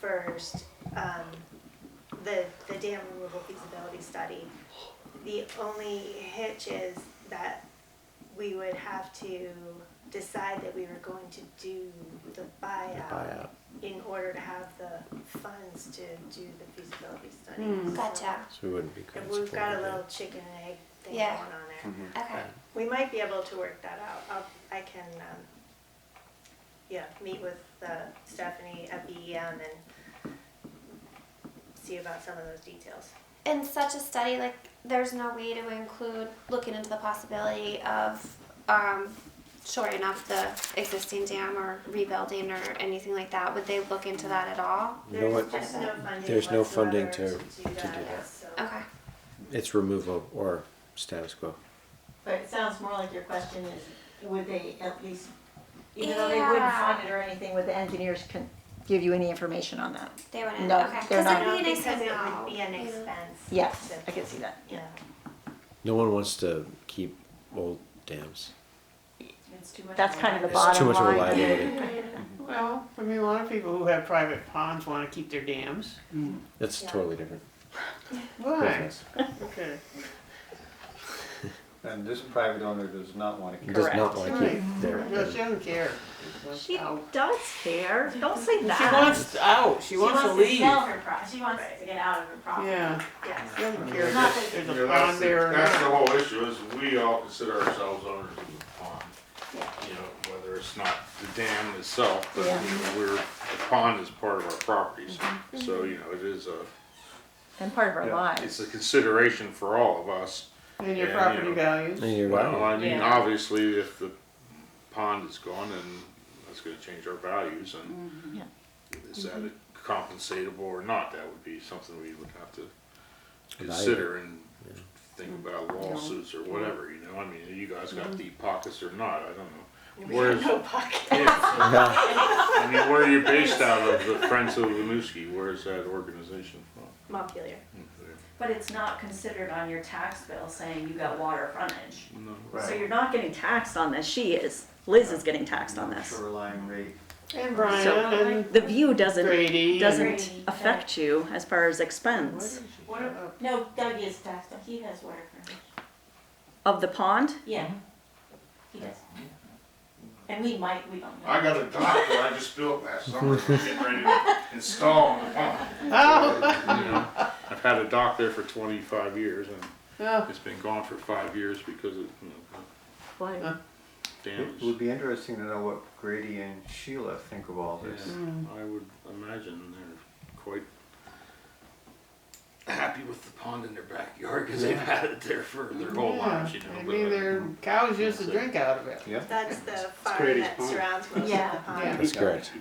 first, um, the, the dam removal feasibility study. The only hitch is that we would have to decide that we were going to do the buyout buyout. in order to have the funds to do the feasibility study. Hmm. So- Gotcha. So we wouldn't be And constantly. we've got a little chicken and egg thing going Yeah. on there. Okay. We might be able to work that out. I'll, I can, um, yeah, meet with uh, Stephanie at BEM and see about some of those details. In such a study, like there's no way to include looking into the possibility of um, shoring up the existing dam or rebuilding or anything like that. Would they look into that at all? No There's one- just no funding there's no funding whatsoever do to- to do that, that. so. Okay. It's removal or status quo. But it sounds more like your question is, would they at least, even though they wouldn't Yeah. fund it or anything, would the engineers can give you any information on that? They wouldn't. No, okay. they're Because not. it'd be nice Because to it know. would be an you know. expense. Yes, to- I can see that, yeah. Yeah. No one wants to keep old dams. It's too much. That's of a kind of the liability. It's too bottom much of a line. liability. Well, I mean, a lot of people who have private ponds want to keep their dams. That's Yeah. totally different Why? business. Okay. And this private owner does not want to It carry. Does not Correct. want to Right. keep their. No, she doesn't care. She Out. does care, don't say She that. wants out. She wants to leave. sell her pro, she wants to get out of her property. Yeah. Yes. She doesn't care Not if there's Yeah, a that's pond the- there or That's the not. whole issue, is we all consider ourselves owners of the pond. Yeah. You know, whether it's not the dam itself, but you Yeah. know, we're, the pond is part of our properties. So, you know, it is a, And part of our it's lives. a consideration for all of us. And your Yeah, property you know. And values. you're Well, I mean, Yeah. obviously, if the pond is gone, then that's gonna change our values and Yeah. is that compensatable or not? That would be something we would have to Evaluate. consider and think about lawsuits or whatever, you know? I mean, you guys got deep pockets or not, I don't know. Where's, yeah, No pocket. Yeah. I mean, where are you based out of, the Friends of Winooski, where's that organization from? Montpelier. But it's not considered on your tax bill saying you got water frontage. No. So Right. you're not getting taxed on this, she is, Liz is getting taxed on this. Shoreline rate. And Brian and The view doesn't, Grady. and- doesn't Grady, yeah. affect you as far as What is expense she? What if- Uh, No, Doug is taxed, but he has water frontage. of the pond. Yeah. He does. And we might, we don't know. I got a doctor I just built last summer, we're getting ready to install the pond. Oh, You know, I've had a dock there for twenty-five years and oh, it's been gone for five years because of, you know, Why? It damage. would be interesting to know what Grady and Sheila think of all this. Yeah, I would imagine they're quite happy with the pond in their backyard because they've had it there for their whole Oh, yeah. lives, you know. I but, mean, their cows used to drink out of it. Yeah? That's the farm Grady's that pond. surrounds most of Yeah. the pond. Yeah. That's correct.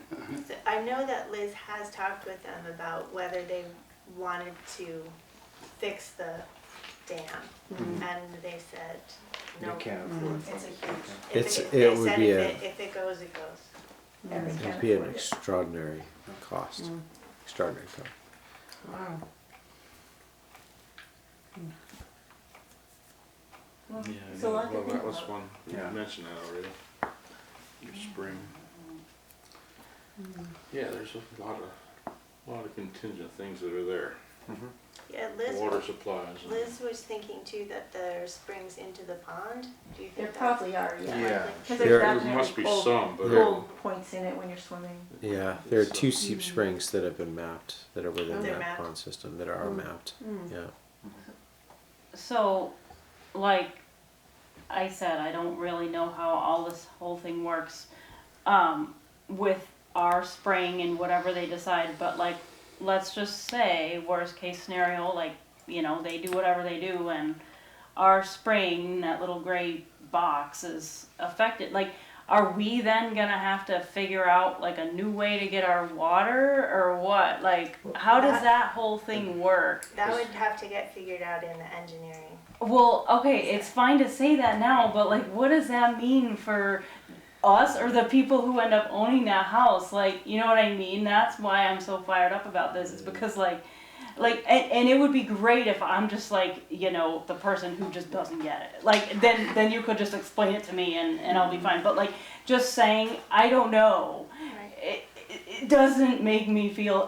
So I know that Liz has talked with them about whether they wanted to fix the dam, Mm-hmm. and they said no. They can't Mm. afford It's a huge, If It's- it, it they would said be if a- it, if it goes, it goes. every It'd county. be an extraordinary cost. Mm. Extraordinary cost. Wow. Yeah, It's a lot to well, think that was about. one, you Yeah. mentioned that already, your spring. Yeah, there's a lot of, lot of contingent things that are there, Yeah, Liz. water supplies. and- Liz was thinking too that there are springs into the pond. Do you think There that's- probably are, yeah. Yeah. Cause There- there's there There must definitely be cold, some, but. cold points in it when you're swimming. Yeah, there are So- two seep springs that have been mapped that are within Mm. They're that mapped. Mm. pond system that are mapped. Yeah. So, like I said, I don't really know how all this whole thing works um, with our spring and whatever they decide, but like, let's just say, worst case scenario, like, you know, they do whatever they do and our spring, that little gray box, is affected. Like, are we then gonna have to figure out like a new way to get our water or what? Like, how does that whole thing work? That would have to get figured out in the engineering. Well, okay, it's fine to say that now, but like, what does that mean for us or the people who end up owning that house? Like, you know what I mean? That's why I'm so fired up about this. It's because like, like, and, and it would be great if I'm just like, you know, the person who just doesn't get it. Like, then then you could just explain it to me, and and I'll be fine. But like, just saying, I don't know. It, it, it doesn't make me feel